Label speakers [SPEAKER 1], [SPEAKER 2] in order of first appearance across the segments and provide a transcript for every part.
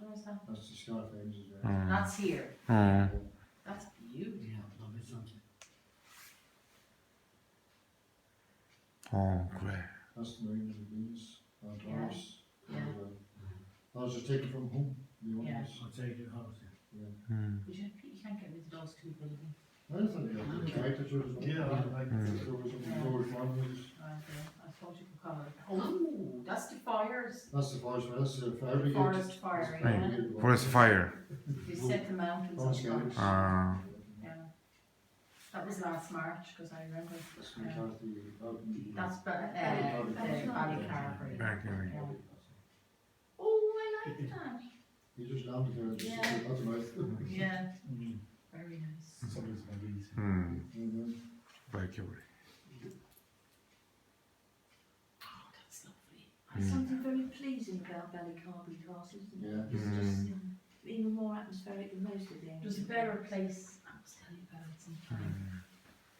[SPEAKER 1] That's the Scott Ames' address.
[SPEAKER 2] Mm,
[SPEAKER 3] That's here.
[SPEAKER 1] 아.
[SPEAKER 2] mm.
[SPEAKER 3] That's beautiful.
[SPEAKER 4] Yeah, love it, something.
[SPEAKER 2] Oh, great.
[SPEAKER 1] That's the name of the business, uh,
[SPEAKER 3] Yeah.
[SPEAKER 1] Doris. um,
[SPEAKER 3] Yeah.
[SPEAKER 1] Those are taken from whom? The
[SPEAKER 3] Yeah.
[SPEAKER 1] owners?
[SPEAKER 4] I'll take your house.
[SPEAKER 2] Mm.
[SPEAKER 3] You should- you can't get rid of those two buildings.
[SPEAKER 1] Anthony, I think, right, that was.
[SPEAKER 4] like.
[SPEAKER 2] Mm.
[SPEAKER 1] There was a George Farmers.
[SPEAKER 3] Right there. I suppose you could call it. Oh, that's the fires.
[SPEAKER 1] That's the forest, that's the fire brigade.
[SPEAKER 3] Forest fire,
[SPEAKER 1] That's
[SPEAKER 3] yeah.
[SPEAKER 1] brigade.
[SPEAKER 2] Forest fire.
[SPEAKER 3] They set the mountains
[SPEAKER 1] Forest
[SPEAKER 3] on
[SPEAKER 1] fires.
[SPEAKER 3] fire.
[SPEAKER 2] Ah.
[SPEAKER 3] Yeah. That was last March, because I remember.
[SPEAKER 1] That's
[SPEAKER 3] Yeah.
[SPEAKER 1] McCarthy, Elton.
[SPEAKER 3] That's, but, uh,
[SPEAKER 1] Valley Carberry.
[SPEAKER 3] uh, Valley Carberry.
[SPEAKER 2] Back in
[SPEAKER 3] Yeah. Oh, I like that.
[SPEAKER 1] He just landed there, just,
[SPEAKER 3] Yeah.
[SPEAKER 1] that's right.
[SPEAKER 3] Yeah, very nice.
[SPEAKER 4] Somebody's my beans.
[SPEAKER 2] Mm.
[SPEAKER 1] And then,
[SPEAKER 2] Like you.
[SPEAKER 3] Oh, that's lovely.
[SPEAKER 5] There's something very pleasing about Valley Carby Castle, isn't
[SPEAKER 1] yeah.
[SPEAKER 5] it? It's just um, even more atmospheric than most of the
[SPEAKER 3] It was a
[SPEAKER 5] ancient.
[SPEAKER 3] better place. I was telling you about it sometime.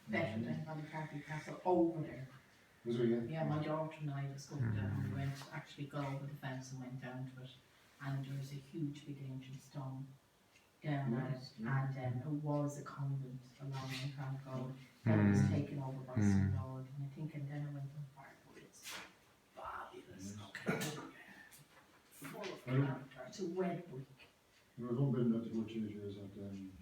[SPEAKER 3] Better
[SPEAKER 1] Mhm.
[SPEAKER 3] than Valley Carby Castle over there.
[SPEAKER 1] Was it, yeah?
[SPEAKER 3] Yeah, my daughter and I was going down, we went, actually got over the fence and went down to it. And there was a huge big ancient stone down at it.
[SPEAKER 1] Yeah,
[SPEAKER 3] And um, it was a convent along the Crown Road. Then it was
[SPEAKER 2] Mm.
[SPEAKER 3] taken over by
[SPEAKER 2] Mm.
[SPEAKER 3] some lord. And I think, and then it went on fire, but it's fabulous. Okay. Full of
[SPEAKER 1] Mm.
[SPEAKER 3] character. It's a redwood.
[SPEAKER 1] There was one building that they were changing, is that, um,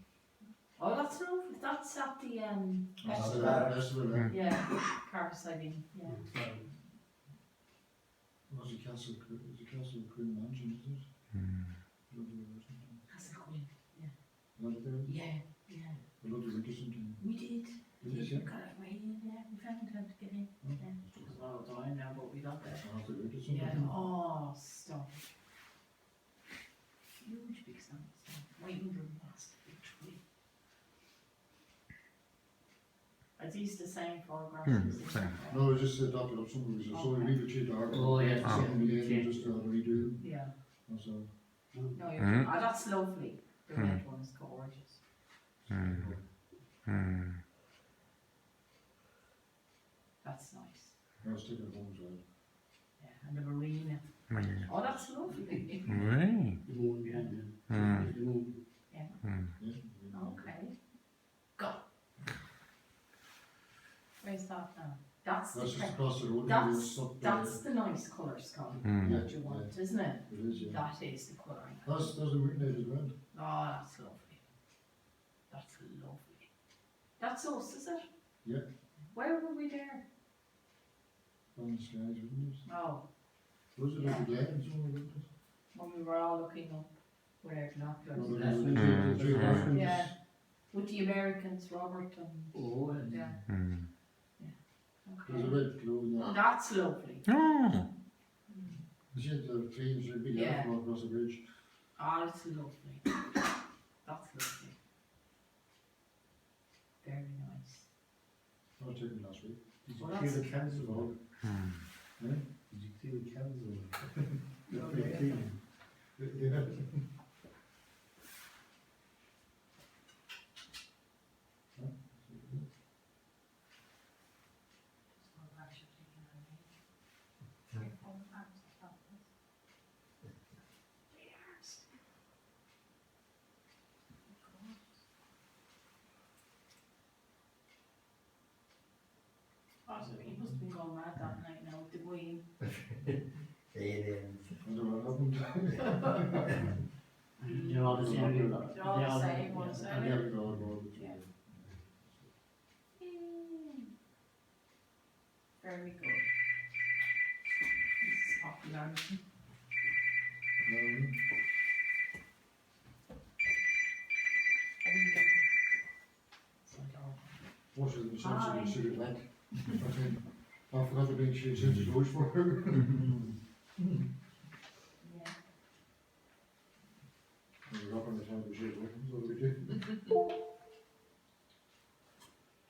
[SPEAKER 3] Oh, that's an awful, that's at the, um,
[SPEAKER 1] Oh, that's the,
[SPEAKER 3] festival.
[SPEAKER 1] that's the, uh,
[SPEAKER 3] yeah, Carpus, I mean, yeah.
[SPEAKER 1] was it Castle, Cre- was it Castle Queen Mansion, is it?
[SPEAKER 2] Mm.
[SPEAKER 1] Lovely, wasn't it?
[SPEAKER 3] That's a queen.
[SPEAKER 1] Was it there?
[SPEAKER 3] Yeah, yeah.
[SPEAKER 1] Lovely, interesting.
[SPEAKER 3] We did.
[SPEAKER 1] Is it, yeah?
[SPEAKER 3] We got it way in there. We found time to get in. It was a lot of time now, but we got there.
[SPEAKER 1] Arthur Richardson.
[SPEAKER 3] Yeah. Oh, stop. Huge big sun. Waiting for the last big tree. Are these the same photographs?
[SPEAKER 2] Hmm, same.
[SPEAKER 1] No, it's just adopted up some reason, so we leave it to the archive.
[SPEAKER 4] Oh, yeah.
[SPEAKER 2] Oh.
[SPEAKER 1] Something we did, just uh, redo,
[SPEAKER 3] Yeah.
[SPEAKER 1] and so.
[SPEAKER 3] No, you're,
[SPEAKER 2] Hmm.
[SPEAKER 3] oh, that's lovely. The
[SPEAKER 2] Hmm.
[SPEAKER 3] red one is gorgeous.
[SPEAKER 2] Mm. Mm.
[SPEAKER 3] That's nice.
[SPEAKER 1] I was taking it home, so.
[SPEAKER 3] Yeah, and the marina.
[SPEAKER 2] Mm.
[SPEAKER 3] Oh, that's lovely.
[SPEAKER 2] Right.
[SPEAKER 4] The moon behind them.
[SPEAKER 2] Mm.
[SPEAKER 4] The moon.
[SPEAKER 2] Mm.
[SPEAKER 1] yeah, we-
[SPEAKER 4] Oh,
[SPEAKER 3] Okay. Go. Where's that now? That's the,
[SPEAKER 1] That's just
[SPEAKER 3] pre-
[SPEAKER 1] across the road. and
[SPEAKER 3] that's,
[SPEAKER 1] it's up there.
[SPEAKER 3] that's the nice colour sky
[SPEAKER 2] Mm.
[SPEAKER 3] that you want, isn't it?
[SPEAKER 1] It eh, is, yeah.
[SPEAKER 3] That is the colour I like.
[SPEAKER 1] That's, that's the weird as well.
[SPEAKER 3] Oh, that's lovely. That's lovely. That's us, is it?
[SPEAKER 1] Yeah.
[SPEAKER 3] Where were we there?
[SPEAKER 1] On the skies, isn't it?
[SPEAKER 3] Oh,
[SPEAKER 1] Was it
[SPEAKER 3] Yeah.
[SPEAKER 1] over there and somewhere, wasn't it?
[SPEAKER 3] when we were all looking up with our
[SPEAKER 1] Or
[SPEAKER 3] binoculars.
[SPEAKER 1] was it
[SPEAKER 4] That's when
[SPEAKER 1] the-
[SPEAKER 2] you-
[SPEAKER 1] the geographic-
[SPEAKER 3] Yeah. With the Americans, Robert and,
[SPEAKER 4] Oh, and.
[SPEAKER 3] yeah,
[SPEAKER 2] Mm.
[SPEAKER 1] There's a
[SPEAKER 3] okay.
[SPEAKER 1] red glow in there.
[SPEAKER 3] That's lovely.
[SPEAKER 2] Oh.
[SPEAKER 1] You see the trees, a big
[SPEAKER 3] Yeah.
[SPEAKER 1] apple across the bridge.
[SPEAKER 3] Oh, that's lovely. That's lovely. Very nice.
[SPEAKER 1] I was taken last week.
[SPEAKER 4] Did
[SPEAKER 3] Well,
[SPEAKER 4] you see the
[SPEAKER 3] that's-
[SPEAKER 4] council?
[SPEAKER 2] Mm.
[SPEAKER 4] Did you see the council?
[SPEAKER 1] Yeah,
[SPEAKER 3] Okay.
[SPEAKER 1] fifteen. Yeah.
[SPEAKER 3] Oh, so he must have been going mad that night now, with the way,
[SPEAKER 6] Aliens.
[SPEAKER 1] I don't know what happened.
[SPEAKER 4] They're all the same.
[SPEAKER 3] They're all the
[SPEAKER 4] They're
[SPEAKER 3] same, one's
[SPEAKER 4] yeah.
[SPEAKER 3] out.
[SPEAKER 1] Yeah, we go, go, go.
[SPEAKER 3] Yeah. very good. This is popularity.
[SPEAKER 1] Um,
[SPEAKER 3] I wouldn't get it. So, no.
[SPEAKER 1] What is the
[SPEAKER 3] Hi.
[SPEAKER 1] sense of the like? I forgot to bring change into those for her.
[SPEAKER 3] Yeah.
[SPEAKER 1] We're up on the time of shit, what do we do?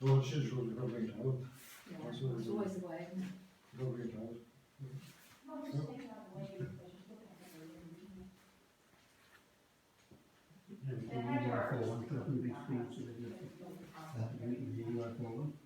[SPEAKER 1] Well, it's just really not bringing it out,
[SPEAKER 5] Yeah,
[SPEAKER 1] That's
[SPEAKER 5] It's
[SPEAKER 1] what it is.
[SPEAKER 5] always the way. isn't it?
[SPEAKER 1] not bringing it out.
[SPEAKER 4] They're all the same. They're all the same. That's the meeting, the UFO one.
[SPEAKER 3] oh